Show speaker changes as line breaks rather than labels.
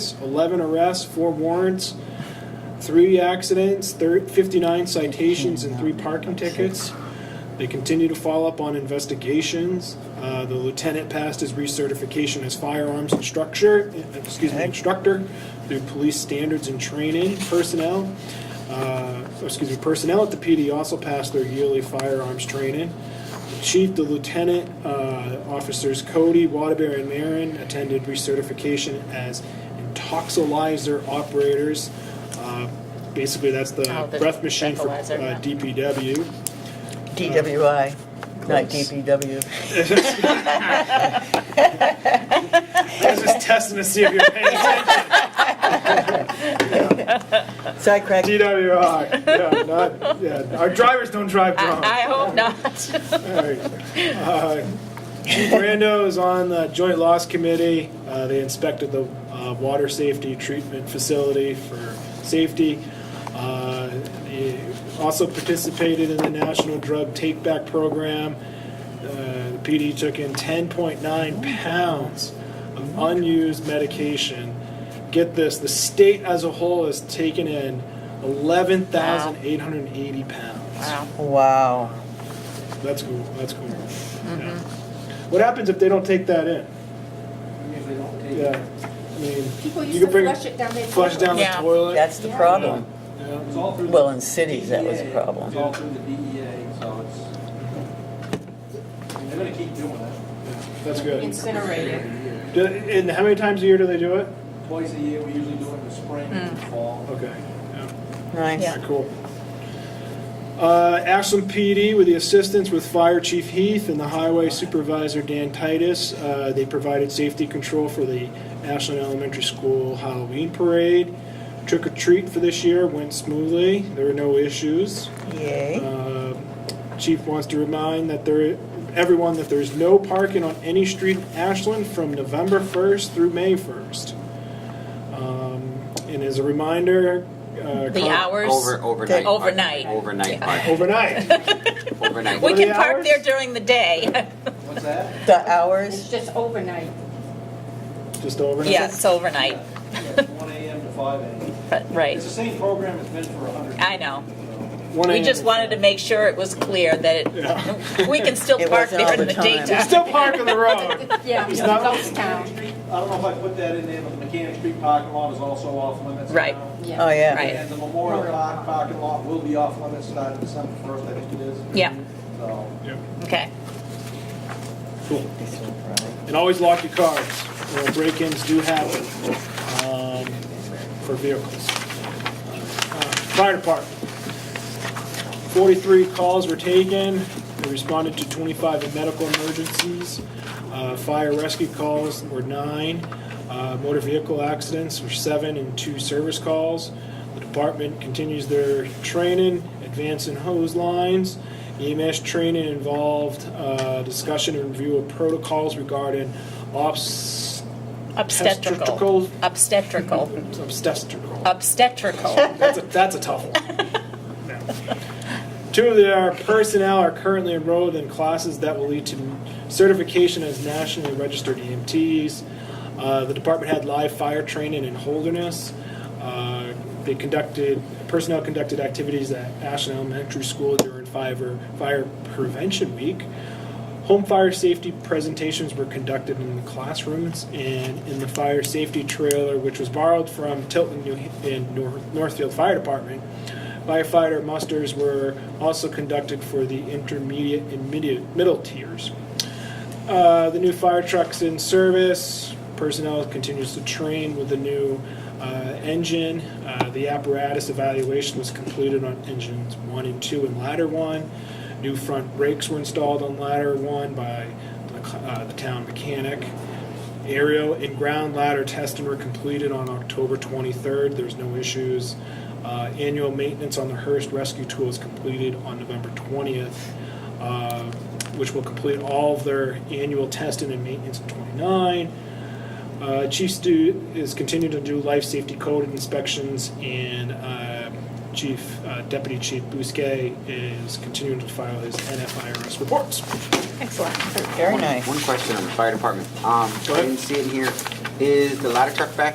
11 arrests, 4 warrants, 3 accidents, thir- 59 citations, and 3 parking tickets. They continue to follow up on investigations. Uh, The lieutenant passed his recertification as firearms instructor, excuse me, instructor through police standards and training personnel. Uh, Excuse me, personnel at the PD also passed their yearly firearms training. The Chief, the lieutenant, uh, officers Cody, Waterbury, and Marin attended recertification as intoxilizer operators. Uh, Basically, that's the
Oh, the
breath machine for uh,
breathalyzer, yeah.
DPW.
DWI, not DPW.
I was just testing to see if you're paying attention.
Sidetrack.
DWI. Yeah, not, yeah. Our drivers don't drive drunk.
I, I hope not.
All right. Uh, Chief Brando is on the Joint Loss Committee. Uh, They inspected the uh, water safety treatment facility for safety. Uh, he Also participated in the National Drug Take Back Program. Uh, The PD took in 10.9 pounds of unused medication. Get this, the state as a whole has taken in 11,880 pounds.
Wow.
Wow.
That's cool. That's cool. Yeah. What happens if they don't take that in? Yeah. I mean,
People
you can
used to
bring
flush it down their.
flush
toilet.
down the
Yeah.
toilet.
That's the
Yeah.
problem.
Yeah.
It's all through
Well,
the
in cities, that was a
DEA.
problem.
It's all through the DEA, so it's, they're gonna keep doing that.
That's good.
Incinerated.
every year.
Do- And how many times a year do they do it?
Twice a year, we usually do it in the spring and
Hmm.
the fall.
Okay. Yeah.
Nice.
Alright, Cool. Uh, Ashland PD with the assistance with Fire Chief Heath and the Highway Supervisor Dan Titus. Uh, they provided safety control for the Ashland Elementary School Halloween Parade. Trick or treat for this year went smoothly. There were no issues.
Yay.
Uh, Chief wants to remind that there, everyone that there's no parking on any street in Ashland from November 1st through May 1st. Um, And as a reminder. uh,
The
con-
hours.
Over, overnight. parking.
Overnight.
Overnight
Yeah.
parking,
Overnight.
overnight.
We
What are
can
the
park
hours?
there during the day.
What's that?
The
It's
hours,
just overnight.
Just overnight?
yeah, it's overnight.
Yeah, it's One AM to five AM.
But, right.
It's the same program it's been for a hundred.
I know.
One
We
AM.
just wanted to make sure it was clear that
Yeah.
it, we can still
It
park
wasn't all
there in
the
the
time.
They
daytime.
still park on the road.
Yeah,
It's not-
ghost town.
I don't know if I put that in there, but the Mechanic Street parking lot is also off limits.
Right.
now.
Yeah.
oh, yeah.
Right.
And the Memorial Park parking lot will be off limits starting December first, I think it is.
Yeah.
So.
Okay.
Cool. And always lock your cars. You know, Break-ins do happen um, for vehicles. Uh, Fire department. 43 calls were taken. They responded to 25 medical emergencies. Uh, Fire rescue calls were nine. Uh, Motor vehicle accidents were seven and two service calls. The department continues their training, advancing hose lines. EMS training involved uh, discussion and review of protocols regarding obs-
Obstetrical. Obstetrical.
obstetrical.
Obstetrical.
That's a, that's a tough one. No. Two of their personnel are currently enrolled in classes that will lead to certification as nationally registered EMTs. Uh, the department had live fire training in Holderness. Uh, they conducted personnel conducted activities at Ashland Elementary School during fire fire prevention week. Home fire safety presentations were conducted in the classrooms and in the fire safety trailer, which was borrowed from Tilton New and Nor- Northfield Fire Department. Firefighter musters were also conducted for the intermediate and midi- middle tiers. Uh, the new fire truck's in service. Personnel continues to train with the new uh, engine. Uh, the apparatus evaluation was completed on engines one and two and ladder one. New front brakes were installed on ladder one by the, c- uh, the town mechanic. Aerial and ground ladder testing were completed on October 23rd. There's no issues. Uh, annual maintenance on the Hearst rescue tool is completed on November 20th, uh, which will complete all of their annual testing and maintenance in 29. Uh, Chief Stu is continuing to do life safety code inspections, and uh, Chief uh, Deputy Chief Bousquet is continuing to file his NFIRS reports.
Excellent.
Very
One-
nice.
One question on the fire department. Um,
Go
I
ahead.
didn't see it in here. Is the ladder truck back